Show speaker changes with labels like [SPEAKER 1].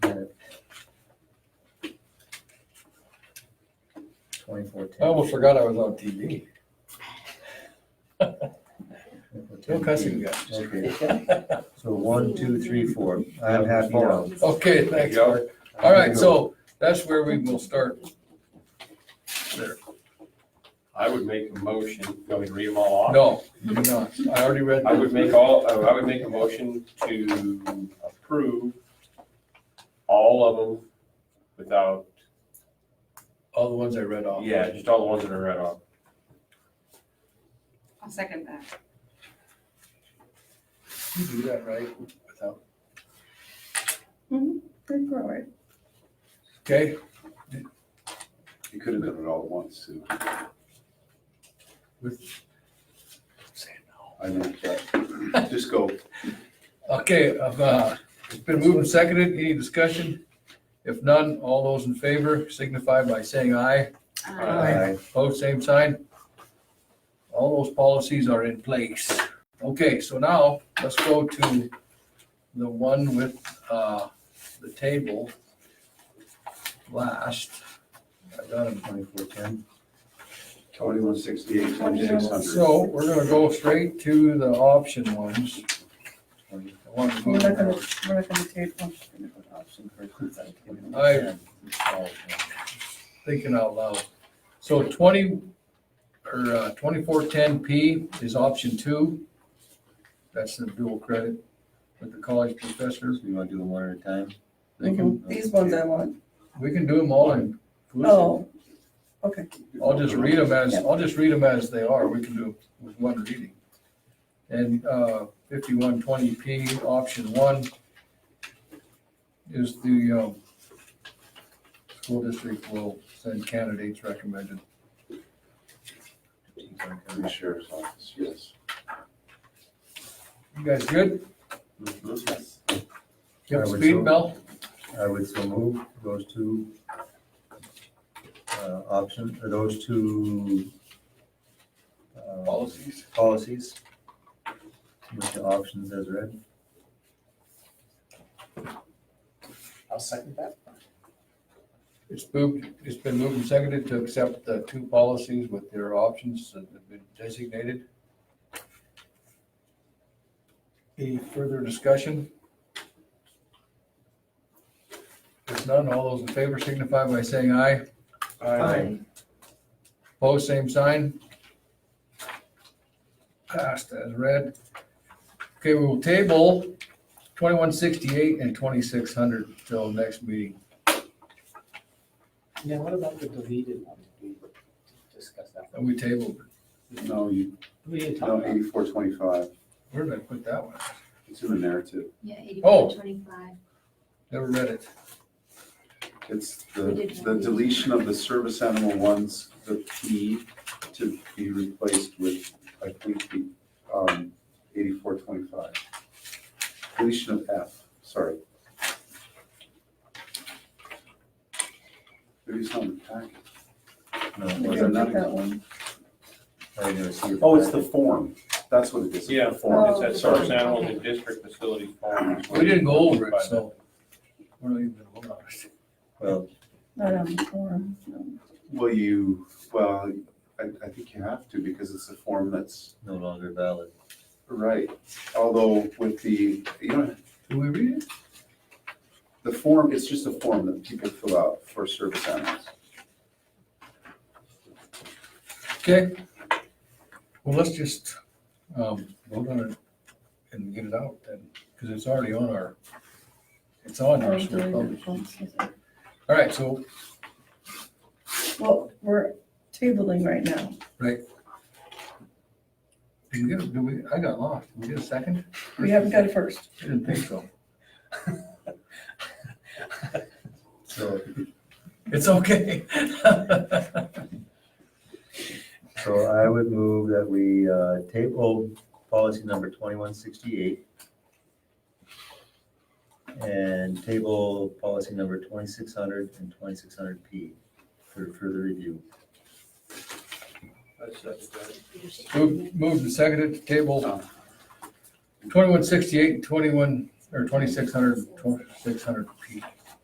[SPEAKER 1] twenty fourteen.
[SPEAKER 2] I almost forgot I was on TV. No cussing, guys.
[SPEAKER 1] Okay, so one, two, three, four. I'm happy now.
[SPEAKER 2] Okay, thanks, Mark. All right, so that's where we will start. There.
[SPEAKER 3] I would make a motion, you want me to read them all off?
[SPEAKER 2] No, you do not. I already read.
[SPEAKER 3] I would make all, uh, I would make a motion to approve all of them without,
[SPEAKER 2] All the ones I read off.
[SPEAKER 3] yeah, just all the ones that are read off.
[SPEAKER 4] I'll second that.
[SPEAKER 2] You do that, right? Without,
[SPEAKER 4] Good forward.
[SPEAKER 2] okay,
[SPEAKER 5] You could have done it all at once, too.
[SPEAKER 2] with,
[SPEAKER 5] I know, but just go.
[SPEAKER 2] okay, uh, it's been moved and seconded. Any discussion? If none, all those in favor signify by saying aye.
[SPEAKER 4] Um,
[SPEAKER 1] Aye.
[SPEAKER 2] Both same sign. All those policies are in place. Okay, so now let's go to the one with, uh, the table. Last, I got it.
[SPEAKER 1] Twenty four ten.
[SPEAKER 5] Twenty-one sixty-eight, twenty-six hundred.
[SPEAKER 2] So we're gonna go straight to the option ones. I want to
[SPEAKER 4] We're
[SPEAKER 2] move
[SPEAKER 4] not
[SPEAKER 2] on.
[SPEAKER 4] gonna, we're not gonna take one.
[SPEAKER 2] I- thinking out loud. So twenty, or uh, twenty-four ten P is option two. That's the dual credit with the college professors.
[SPEAKER 1] You wanna do them one at a time?
[SPEAKER 2] They can,
[SPEAKER 4] These ones I want.
[SPEAKER 2] we can do them all in.
[SPEAKER 4] Oh, okay.
[SPEAKER 2] I'll just read them as, I'll just read them as they are. We can do with one reading. And uh, fifty-one twenty P, option one is the um, school district will send candidates recommended.
[SPEAKER 5] In the sheriff's office, yes.
[SPEAKER 2] You guys good?
[SPEAKER 3] Mm-hmm.
[SPEAKER 2] You
[SPEAKER 1] I
[SPEAKER 2] have
[SPEAKER 1] would so.
[SPEAKER 2] speed, Mel?
[SPEAKER 1] I would so move those two uh, option, or those two uh,
[SPEAKER 2] Policies.
[SPEAKER 1] policies with the options as read.
[SPEAKER 6] I'll second that.
[SPEAKER 2] It's moved, it's been moved and seconded to accept the two policies with their options that have been designated. Any further discussion? If none, all those in favor signify by saying aye.
[SPEAKER 1] Aye.
[SPEAKER 2] Opposed, same sign. Passed as read. Okay, we will table twenty-one sixty-eight and twenty-six hundred till next meeting.
[SPEAKER 6] Yeah, what about the deleted one? We discussed that.
[SPEAKER 2] And we tabled,
[SPEAKER 5] No, you,
[SPEAKER 6] We didn't talk
[SPEAKER 5] no,
[SPEAKER 1] Um,
[SPEAKER 6] about it.
[SPEAKER 5] eighty-four twenty-five.
[SPEAKER 2] where did I put that one?
[SPEAKER 5] It's in the narrative.
[SPEAKER 7] Yeah,
[SPEAKER 2] Oh.
[SPEAKER 7] eighty-four twenty-five.
[SPEAKER 2] Never read it.
[SPEAKER 5] It's the, the deletion of the service animal ones, the P to be replaced with, I think, the, um, eighty-four twenty-five. Deletion of F, sorry. Maybe it's not in the packet.
[SPEAKER 1] No,
[SPEAKER 4] We
[SPEAKER 5] Was
[SPEAKER 1] was
[SPEAKER 5] there
[SPEAKER 4] didn't
[SPEAKER 1] it?
[SPEAKER 5] not
[SPEAKER 4] get that one.
[SPEAKER 1] I didn't see it.
[SPEAKER 5] Oh, it's the form. That's what it is.
[SPEAKER 3] Yeah,
[SPEAKER 5] The form.
[SPEAKER 3] It's that service animals and district facility forms.
[SPEAKER 2] We didn't go over it, so. we're not even hold on.
[SPEAKER 1] Well,
[SPEAKER 4] Not on the form, no.
[SPEAKER 5] Well, you, well, I, I think you have to because it's a form that's
[SPEAKER 1] no longer valid.
[SPEAKER 5] right. Although with the, you know,
[SPEAKER 2] Did we read it?
[SPEAKER 5] the form, it's just a form that people fill out for service animals.
[SPEAKER 2] Okay. Well, let's just, um, vote on it and get it out then, because it's already on our, it's on our.
[SPEAKER 4] Oh,
[SPEAKER 2] so we'll publish it.
[SPEAKER 4] deleted.
[SPEAKER 2] All right, so,
[SPEAKER 4] Well, we're tabling right now.
[SPEAKER 2] did we get, a- did we, I got lost. Did we get a second?
[SPEAKER 4] We haven't got a first.
[SPEAKER 2] I didn't think so.
[SPEAKER 1] So,
[SPEAKER 2] It's okay.
[SPEAKER 1] so I would move that we uh, table policy number twenty-one sixty-eight and table policy number twenty-six hundred and twenty-six hundred P for further review.
[SPEAKER 2] Moved, moved and seconded to table twenty-one sixty-eight, twenty-one, or twenty-six hundred, twenty-six hundred P.